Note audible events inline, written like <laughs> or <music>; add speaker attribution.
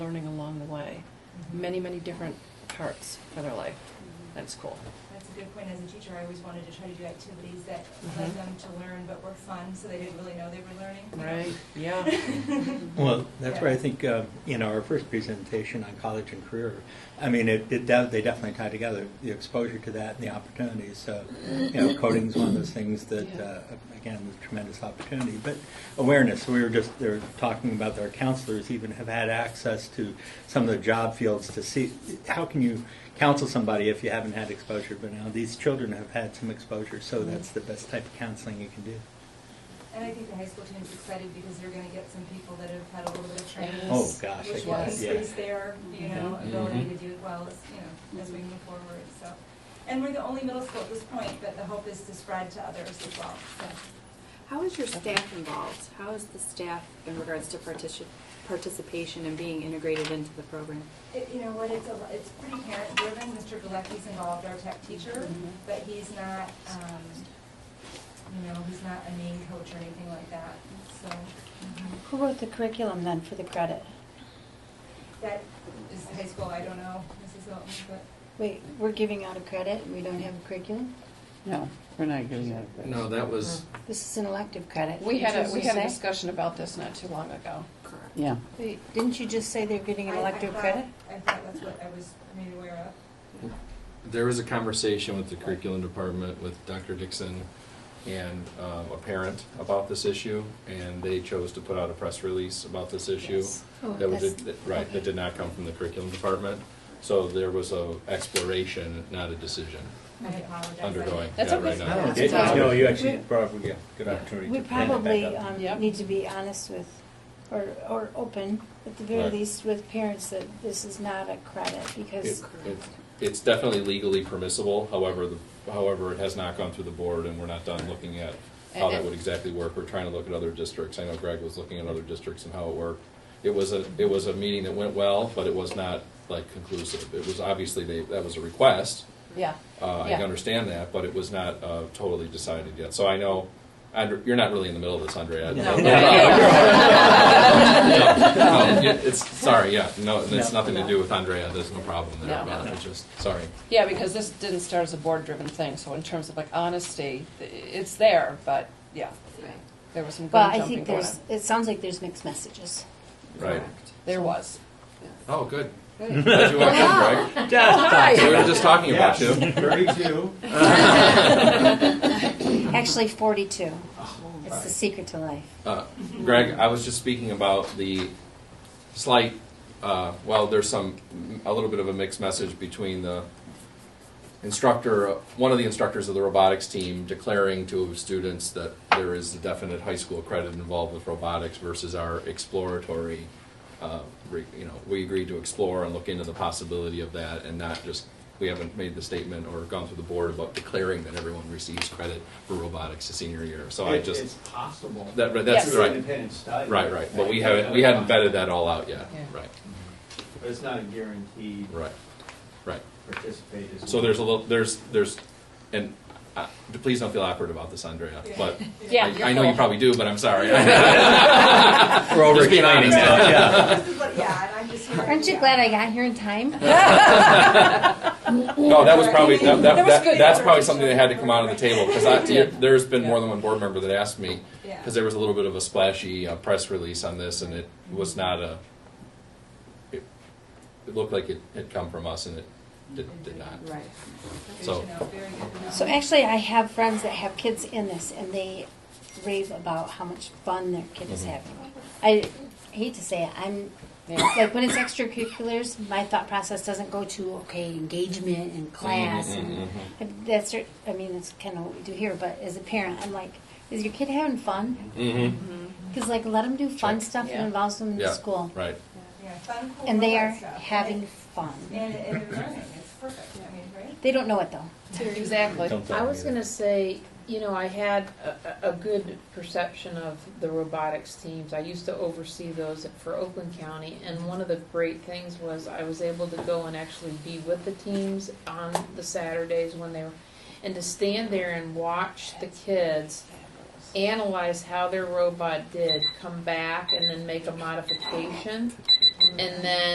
Speaker 1: Mm-hmm.
Speaker 2: many, many different parts for their life. That's cool.
Speaker 3: That's a good point. As a teacher, I always wanted to try to do activities that led
Speaker 2: Mhm.
Speaker 3: them to learn but were fun, so they didn't really know they were learning.
Speaker 2: Right? Yeah.
Speaker 4: Well, that's where I think uh, in our first presentation on college and career, I mean, it, it de- they definitely tie together the exposure to that and the opportunities. So, you know, coding is one of those things that
Speaker 2: Yeah.
Speaker 4: uh, again was tremendous opportunity. But awareness. We were just they were talking about our counselors even have had access to some of the job fields to see how can you counsel somebody if you haven't had exposure. But now these children have had some exposure, so that's the best type of counseling you can do.
Speaker 3: <laughs> And I think the high school team's excited because they're gonna get some people that have had a little bit of training.
Speaker 4: Oh gosh, I
Speaker 3: Which will
Speaker 4: guess, yeah.
Speaker 3: increase their, you know,
Speaker 2: Mhm.
Speaker 3: ability
Speaker 4: Mhm.
Speaker 3: to do well as, you know, as we move forward, so. And we're the only middle school at this point, but the hope is to spread to others as well, so.
Speaker 5: How is your staff involved? How is the staff in regards to partici- participation and being integrated into the program?
Speaker 3: It, you know what, it's a, it's pretty parent driven. Mr. Galecki's involved, our tech teacher,
Speaker 1: Mm-hmm.
Speaker 2: Mhm.
Speaker 3: but he's not, um, you know, he's not a main coach or anything like that, so. mhm.
Speaker 1: Who wrote the curriculum then for the credit?
Speaker 3: That is high school, I don't know, Mrs. Hilton, but.
Speaker 1: Wait, we're giving out a credit and we don't have a curriculum?
Speaker 6: No, we're not giving out. a
Speaker 7: No, that was,
Speaker 1: This is an elective credit.
Speaker 8: We had
Speaker 1: Didn't
Speaker 8: a,
Speaker 1: you
Speaker 8: we
Speaker 1: just
Speaker 8: had a
Speaker 1: say-
Speaker 8: discussion about this not too long ago.
Speaker 5: Correct.
Speaker 6: Yeah,
Speaker 1: Wait, didn't you just say they're getting an
Speaker 3: I- I
Speaker 1: elective
Speaker 3: thought-
Speaker 1: credit?
Speaker 3: I thought that's what I was made aware of.
Speaker 7: there was a conversation with the curriculum department with Dr. Dixon and um, a parent about this issue, and they chose to put out a press release about this issue.
Speaker 8: Yes.
Speaker 1: Oh,
Speaker 7: That was,
Speaker 1: that's-
Speaker 7: that- right, that did not come from the curriculum department. So there was a exploration, not a decision
Speaker 3: I apologize. I-
Speaker 7: undergoing.
Speaker 8: That's
Speaker 7: yeah,
Speaker 8: okay.
Speaker 7: right now.
Speaker 4: I don't
Speaker 8: That's
Speaker 4: know.
Speaker 8: fine.
Speaker 4: No, you actually brought up a good- good opportunity
Speaker 1: We
Speaker 4: to bring it
Speaker 1: probably
Speaker 4: back up.
Speaker 1: um,
Speaker 8: Yep.
Speaker 1: need to be honest with, or, or open, at the very
Speaker 7: Right.
Speaker 1: least, with parents that this is not a credit because
Speaker 7: It- it- It's definitely legally permissible, however, the- however, it has not gone through the board, and we're not done looking at how that would exactly work. We're trying to look at other districts. I know Greg was looking at other districts and how it worked. It was a, it was a meeting that went well, but it was not like conclusive. It was obviously, they, that was a request.
Speaker 8: Yeah.
Speaker 7: Uh, I
Speaker 8: Yeah.
Speaker 7: understand that, but it was not uh, totally decided yet. So I know, Andre- you're not really in the middle of this,
Speaker 4: <laughs>
Speaker 7: Andrea.
Speaker 4: No.
Speaker 7: No, no, It's, sorry, yeah, no, it's
Speaker 4: No.
Speaker 7: nothing to do with Andrea. There's no problem there
Speaker 8: No.
Speaker 7: about it, just, sorry.
Speaker 8: Yeah, because this didn't start as a board-driven thing, so in terms of like honesty, th- it's there, but yeah, there was some
Speaker 1: Well,
Speaker 8: gun
Speaker 1: I
Speaker 8: jumping
Speaker 1: think
Speaker 8: going on.
Speaker 1: there's, it sounds like there's mixed messages.
Speaker 7: Right.
Speaker 8: There was.
Speaker 7: Oh, good. Glad you walked
Speaker 8: <laughs>
Speaker 7: in, Greg. So we were just talking about you.
Speaker 4: Thirty-two.
Speaker 1: Actually, 42. It's the secret to life.
Speaker 7: Uh, Greg, I was just speaking about the slight, uh, well, there's some, a little bit of a mixed message between the instructor, one of the instructors of the robotics team declaring to students that there is a definite high school credit involved with robotics versus our exploratory, uh, re- you know, we agreed to explore and look into the possibility of that and not just, we haven't made the statement or gone through the board about declaring that everyone receives credit for robotics the senior year. So I
Speaker 9: It-
Speaker 7: just.
Speaker 9: It's possible.
Speaker 7: That, right, that's
Speaker 8: Yes.
Speaker 9: Through
Speaker 7: right,
Speaker 9: independent study.
Speaker 7: right, right. But we haven't, we hadn't vetted that all out yet.
Speaker 8: Yeah.
Speaker 7: Right,
Speaker 9: But it's not a guaranteed
Speaker 7: right, right.
Speaker 9: participate. is-
Speaker 7: So there's a little, there's, there's, and uh, please don't feel awkward about this, Andrea, but
Speaker 8: Yeah,
Speaker 7: I
Speaker 8: you're
Speaker 7: I know you
Speaker 8: cool.
Speaker 7: probably do, but I'm sorry. <laughs>
Speaker 4: We're over
Speaker 7: Just being
Speaker 4: explaining
Speaker 7: honest.
Speaker 4: now. <laughs> Yeah.
Speaker 3: This is what- Yeah, and I'm just here.
Speaker 1: Aren't you
Speaker 3: yeah.
Speaker 1: glad I got here
Speaker 4: <laughs>
Speaker 1: in time?
Speaker 7: <laughs> No, that was probably, that, that,
Speaker 8: That was
Speaker 7: that-
Speaker 8: good.
Speaker 7: that's probably something that had to come out on the table, because I, there's been more
Speaker 8: Yeah.
Speaker 7: than one board member that asked me,
Speaker 3: Yeah.
Speaker 7: because there was a little bit of a splashy uh, press release on this, and it was not a, it, it looked like it had come from us, and it did, did not.
Speaker 5: Right.
Speaker 3: Good
Speaker 7: so-
Speaker 3: to know, very good to know.
Speaker 1: So actually, I have friends that have kids in this, and they rave about how much fun their kid is
Speaker 7: Mhm.
Speaker 1: having. I hate to say it, I'm
Speaker 8: Yeah.
Speaker 1: like when it's extracurriculars, my thought process doesn't go to okay engagement and class,
Speaker 7: Mhm,
Speaker 1: and
Speaker 7: mhm, mhm.
Speaker 1: and that's cer- I mean that's kind of what we do here. But as a parent, I'm like, is your kid having fun?
Speaker 7: Mm-hmm.
Speaker 1: Because like let them do fun
Speaker 7: Check.
Speaker 1: stuff
Speaker 8: Yeah.
Speaker 1: that involves them in
Speaker 7: Yeah.
Speaker 1: school,
Speaker 7: Right.
Speaker 3: Yeah, fun, cool,
Speaker 1: and they are
Speaker 3: robot stuff.
Speaker 1: having fun.
Speaker 3: And, and they're learning, it's perfect, I mean, right?
Speaker 1: They don't know it though.
Speaker 8: Exactly.
Speaker 4: Don't tell
Speaker 6: I
Speaker 4: me
Speaker 6: was
Speaker 4: either.
Speaker 6: gonna say, you know, I had a, a- a good perception of the robotics teams. I used to oversee those for Oakland County, and one of the great things was I was able to go and actually be with the teams on the Saturdays when they were, and to stand there and watch the kids analyze how their robot did, come back, and then make a modification, and then